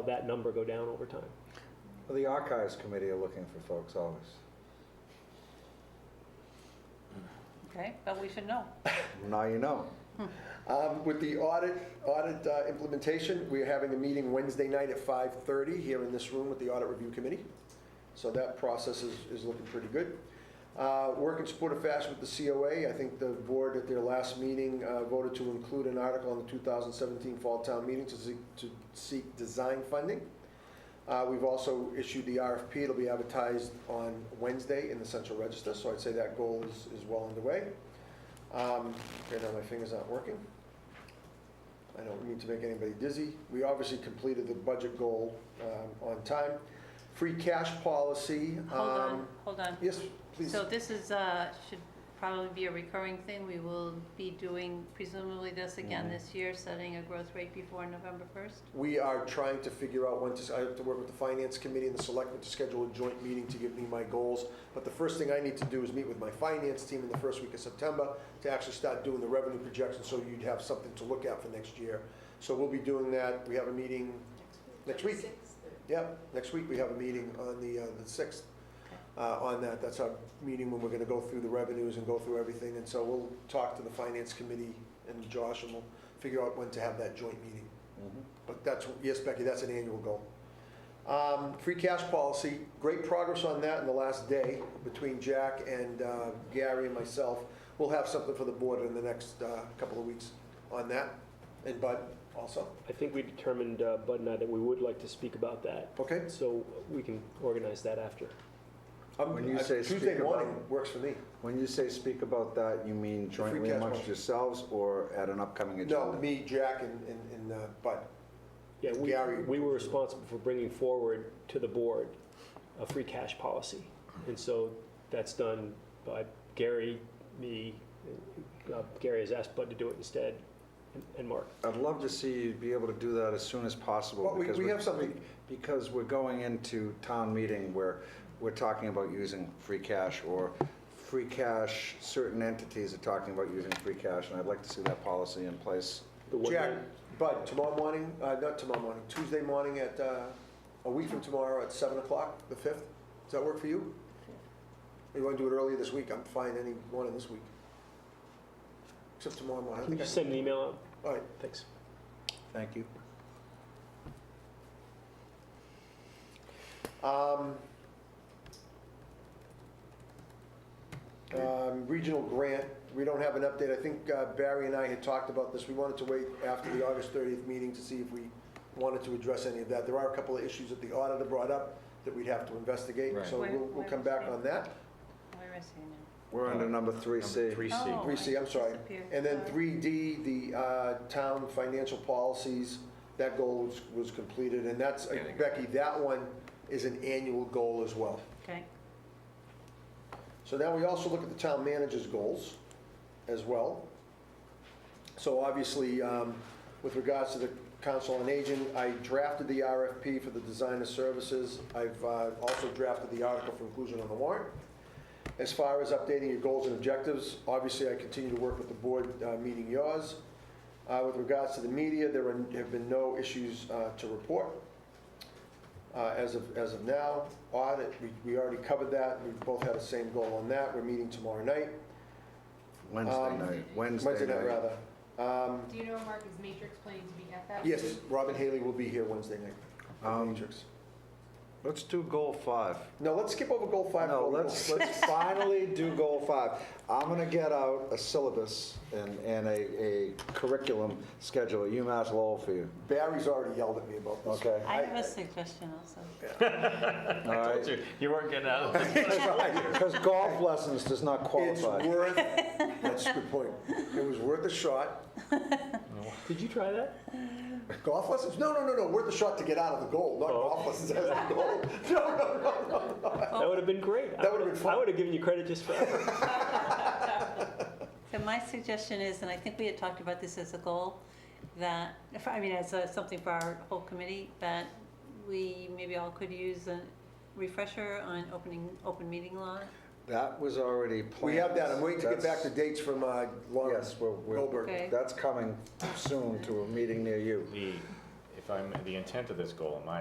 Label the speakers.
Speaker 1: of that number go down over time.
Speaker 2: Well, The Archives Committee are looking for folks always.
Speaker 3: Okay, but we should know.
Speaker 2: Now you know.
Speaker 4: Um, With the audit, audit uh, implementation, we're having a meeting Wednesday night at 5:30 here in this room with the Audit Review Committee. So that process is, is looking pretty good. Uh, Work in support of FAST with the COA, I think the board at their last meeting uh, voted to include an article in the 2017 Fall Town Meeting to seek, to seek design funding. Uh, We've also issued the RFP, it'll be advertised on Wednesday in the Central Register, so I'd say that goal is, is well underway. Um, Right now, my finger's not working. I don't mean to make anybody dizzy. We obviously completed the budget goal um, on time. Free cash policy.
Speaker 3: Hold on,
Speaker 4: um,
Speaker 3: hold on.
Speaker 4: Yes, please.
Speaker 3: So this is, uh, should probably be a recurring thing. We will be doing presumably this again
Speaker 4: Mm-hmm.
Speaker 2: Mhm.
Speaker 3: this year, setting a growth rate before November 1st.
Speaker 4: We are trying to figure out when to, I have to work with the finance committee and the selectmen to schedule a joint meeting to give me my goals. But the first thing I need to do is meet with my finance team in the first week of September to actually start doing the revenue projections, so you'd have something to look at for next year. So we'll be doing that. We have a meeting next week. Yep, next week we have a meeting on the, uh, the sixth, uh, on that. That's our meeting when we're gonna go through the revenues and go through everything. And so we'll talk to the finance committee and Josh and we'll figure out when to have that joint meeting. But that's, yes, Becky, that's an annual goal. Um, Free cash policy, great progress on that in the last day between Jack and uh, Gary and myself. We'll have something for the board in the next uh, couple of weeks on that, and Bud also,
Speaker 1: I think we determined, uh, Bud and I, that we would like to speak about that,
Speaker 4: okay?
Speaker 1: so we can organize that after.
Speaker 4: I'm-
Speaker 2: When you
Speaker 4: I-
Speaker 2: say
Speaker 4: Tuesday
Speaker 2: speak about-
Speaker 4: morning works for me.
Speaker 2: When you say speak about that, you mean jointly
Speaker 4: cash
Speaker 2: amongst
Speaker 4: flow.
Speaker 2: yourselves or at an upcoming agenda?
Speaker 4: No, me, Jack, and, and- and uh, Bud.
Speaker 1: Yeah, we,
Speaker 4: Gary.
Speaker 1: we were responsible for bringing forward to the board a free cash policy. And so that's done by Gary, me, uh, Gary has asked Bud to do it instead, and- and Mark.
Speaker 2: I'd love to see you be able to do that as soon as possible.
Speaker 4: Well, we-
Speaker 2: because
Speaker 4: we
Speaker 2: we're-
Speaker 4: have something-
Speaker 2: Because we're going into town meeting where we're talking about using free cash or free cash, certain entities are talking about using free cash, and I'd like to see that policy in place.
Speaker 1: The one-
Speaker 4: Jack, Bud, tomorrow morning, uh, not tomorrow morning, Tuesday morning at, uh, a week from tomorrow at seven o'clock, the fifth. Does that work for you? You wanna do it earlier this week? I'm fine any morning this week. Except tomorrow morning. I
Speaker 1: Can you
Speaker 4: think I-
Speaker 1: just send an email out?
Speaker 4: All right,
Speaker 1: Thanks.
Speaker 2: Thank you.
Speaker 4: Um, um, Regional grant, we don't have an update. I think uh, Barry and I had talked about this. We wanted to wait after the August 30th meeting to see if we wanted to address any of that. There are a couple of issues that the auditor brought up that we'd have to investigate,
Speaker 5: Right.
Speaker 4: so we'll,
Speaker 3: Where-
Speaker 4: we'll
Speaker 3: where
Speaker 4: come
Speaker 3: is
Speaker 4: back
Speaker 3: that?
Speaker 4: on that.
Speaker 3: Where is he now?
Speaker 2: We're under number three C.
Speaker 5: Three C.
Speaker 3: Oh.
Speaker 4: Uh, Three C, I'm sorry.
Speaker 3: Disappeared.
Speaker 4: And then
Speaker 3: Sorry.
Speaker 4: three D, the uh, town financial policies, that goal was, was completed, and that's,
Speaker 5: Yeah, they got
Speaker 4: Becky, that one is an annual goal as well.
Speaker 3: Okay.
Speaker 4: So now we also look at the town manager's goals as well. So obviously, um, with regards to the council on aging, I drafted the RFP for the design of services. I've uh, also drafted the article for inclusion on the warrant. As far as updating your goals and objectives, obviously, I continue to work with the board, uh, meeting yours. Uh, With regards to the media, there are- have been no issues uh, to report uh, as of, as of now. Audit, we we already covered that, we both had the same goal on that, we're meeting tomorrow night,
Speaker 2: Wednesday
Speaker 4: Um,
Speaker 2: night,
Speaker 4: Wednesday
Speaker 2: Wednesday
Speaker 4: night,
Speaker 2: night.
Speaker 4: rather. Um,
Speaker 6: Do you know Mark is Matrix planning to be at that?
Speaker 4: Yes, Robin Haley will be here Wednesday night.
Speaker 2: Um,
Speaker 4: Matrix.
Speaker 2: Let's do goal five.
Speaker 4: No, let's skip over goal five.
Speaker 2: No,
Speaker 4: goal four.
Speaker 2: let's, let's finally do goal five. I'm gonna get out a syllabus and, and a, a curriculum schedule at UMass Lowell for you,
Speaker 4: Barry's already yelled at me about this.
Speaker 2: okay?
Speaker 3: I have a suggestion also.
Speaker 2: All
Speaker 5: I
Speaker 2: right.
Speaker 5: told you, you weren't getting out of this.
Speaker 2: Because golf lessons does not
Speaker 4: It's
Speaker 2: qualify.
Speaker 4: worth, that's a good point. It was worth a shot.
Speaker 1: Did you try that?
Speaker 4: Golf lessons? No, no, no, no, worth a shot to get out of the goal, not
Speaker 2: Oh.
Speaker 4: golf lessons as the goal. No, no, no, no.
Speaker 5: Oh.
Speaker 1: That would have been great. I
Speaker 4: That would've been
Speaker 1: I
Speaker 4: fun.
Speaker 1: would have given you credit just for that.
Speaker 3: So my suggestion is, and I think we had talked about this as a goal, that, I mean, as a- something for our whole committee, that we maybe all could use a refresher on opening, open meeting law.
Speaker 2: That was already planned.
Speaker 4: We have that, I'm waiting to get back to
Speaker 2: That's-
Speaker 4: dates from uh, Lauren
Speaker 2: Yes, we're- we're-
Speaker 4: Goldberg.
Speaker 3: Okay.
Speaker 2: That's coming soon to a meeting near you.
Speaker 5: The- If if I'm, the intent of this goal, in my